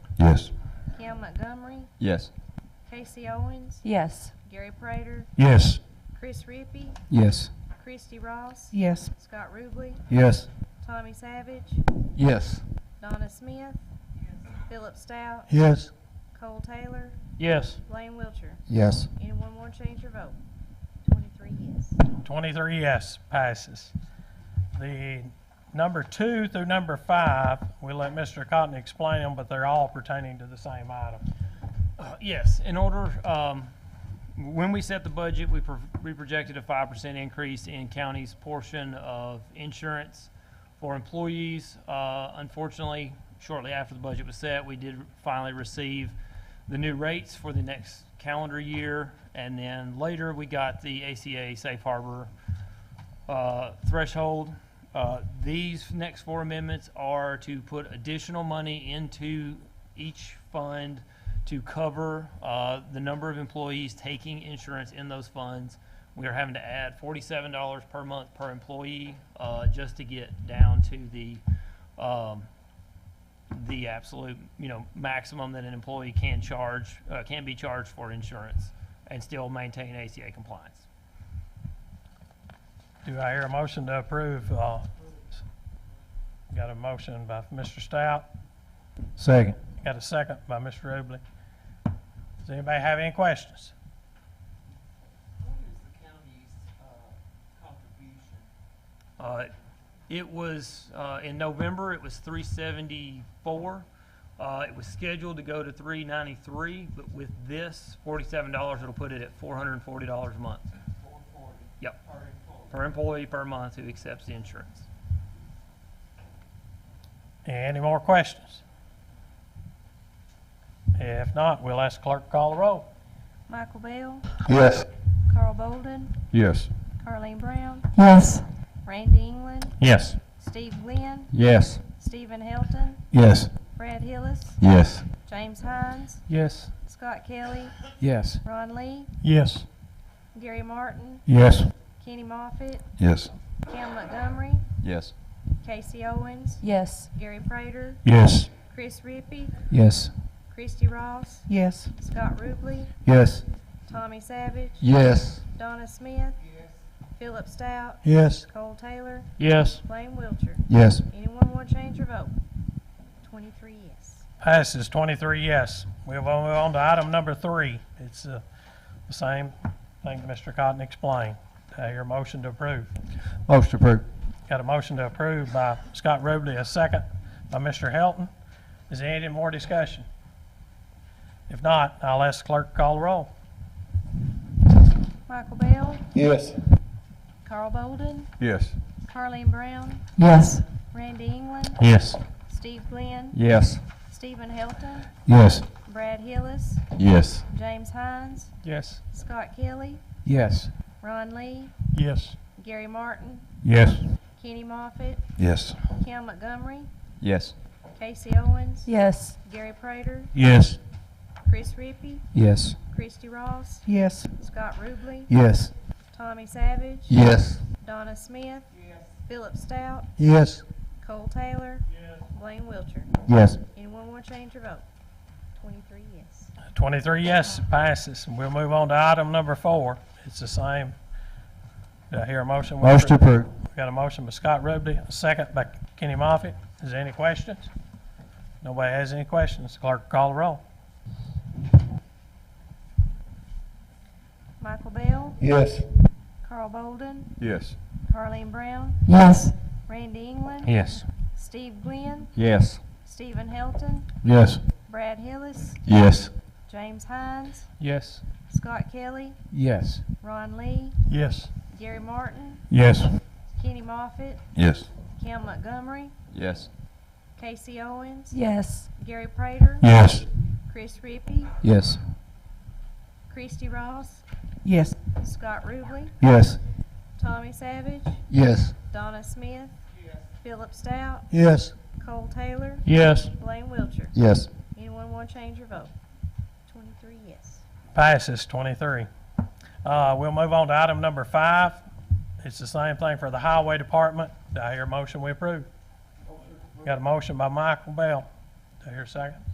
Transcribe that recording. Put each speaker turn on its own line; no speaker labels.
Yes.
Cam Montgomery,
Yes.
Casey Owens,
Yes.
Gary Prater,
Yes.
Chris Rippey,
Yes.
Christy Ross,
Yes.
Scott Ruble,
Yes.
Tommy Savage,
Yes.
Donna Smith, Philip Stout,
Yes.
Cole Taylor,
Yes.
Blaine Wiltshire.
Yes.
Anyone want to change your vote? Twenty-three yes.
23 yes passes. The number two through number five, we'll let Mr. Cotton explain them, but they're all pertaining to the same item.
Uh, Yes, in order, um, when we set the budget, we pro- we projected a five percent increase in county's portion of insurance for employees. Uh, Unfortunately, shortly after the budget was set, we did finally receive the new rates for the next calendar year. And then later, we got the ACA safe harbor uh, threshold. Uh, These next four amendments are to put additional money into each fund to cover uh, the number of employees taking insurance in those funds. We are having to add forty-seven dollars per month per employee uh, just to get down to the, um, the absolute, you know, maximum that an employee can charge, uh, can be charged for insurance and still maintain ACA compliance.
Do I hear a motion to approve? uh, Got a motion by Mr. Stout,
Second.
got a second by Mr. Ruble. Does anybody have any questions?
What is the county's uh, contribution?
Uh, It was, uh, in November, it was three seventy-four. Uh, it was scheduled to go to three ninety-three, but with this forty-seven dollars, it'll put it at four hundred and forty dollars a month.
Four forty
Yep,
per employee.
per employee per month who accepts the insurance.
Any more questions? If not, we'll ask clerk to call the roll.
Michael Bell,
Yes.
Carl Bolden,
Yes.
Carleen Brown,
Yes.
Randy England,
Yes.
Steve Glenn,
Yes.
Stephen Hilton,
Yes.
Brad Hillis,
Yes.
James Hines,
Yes.
Scott Kelly,
Yes.
Ron Lee,
Yes.
Gary Martin,
Yes.
Kenny Moffitt,
Yes.
Cam Montgomery,
Yes.
Casey Owens,
Yes.
Gary Prater,
Yes.
Chris Rippey,
Yes.
Christy Ross,
Yes.
Scott Ruble,
Yes.
Tommy Savage,
Yes.
Donna Smith,
Yes,
Philip Stout,
Yes.
Cole Taylor,
Yes.
Blaine Wiltshire.
Yes.
Anyone want to change your vote? Twenty-three yes.
Passes 23 yes. We'll move on to item number three. It's uh, the same thing Mr. Cotton explained. Uh, Your motion to approve.
Motion approved.
Got a motion to approve by Scott Ruble, a second by Mr. Helton. Is there any more discussion? If not, I'll ask clerk to call the roll.
Michael Bell,
Yes.
Carl Bolden,
Yes.
Carleen Brown,
Yes.
Randy England,
Yes.
Steve Glenn,
Yes.
Stephen Helton,
Yes.
Brad Hillis,
Yes.
James Hines,
Yes.
Scott Kelly,
Yes.
Ron Lee,
Yes.
Gary Martin,
Yes.
Kenny Moffitt,
Yes.
Cam Montgomery,
Yes.
Casey Owens,
Yes.
Gary Prater,
Yes.
Chris Rippey,
Yes.
Christy Ross,
Yes.
Scott Ruble,
Yes.
Tommy Savage,
Yes.
Donna Smith,
yes,
Philip Stout,
Yes.
Cole Taylor, Blaine Wiltshire.
Yes.
Anyone want to change your vote? Twenty-three yes.
23 yes it passes. And We'll move on to item number four. It's the same. Do I hear a motion? We
Motion
approve.
approved.
Got a motion by Scott Ruble, a second by Kenny Moffitt. Is there any questions? Nobody has any questions. Clerk, call the roll.
Michael Bell,
Yes.
Carl Bolden,
Yes.
Carleen Brown,
Yes.
Randy England,
Yes.
Steve Glenn,
Yes.
Stephen Helton,
Yes.
Brad Hillis,
Yes.
James Hines,
Yes.
Scott Kelly,
Yes.
Ron Lee,
Yes.
Gary Martin,
Yes.
Kenny Moffitt,
Yes.
Cam Montgomery,
Yes.
Casey Owens,
Yes.
Gary Prater,
Yes.
Chris Rippey,
Yes.
Christy Ross,
Yes.
Scott Ruble,
Yes.
Tommy Savage,
Yes.
Donna Smith,
yes.
Philip Stout,
Yes.
Cole Taylor,
Yes.
Blaine Wiltshire.
Yes.
Anyone want to change your vote? Twenty-three yes.
Passes 23. Uh, We'll move on to item number five. It's the same thing for the Highway Department. Do I hear a motion we approve? Got a motion by Michael Bell. Do I hear a second?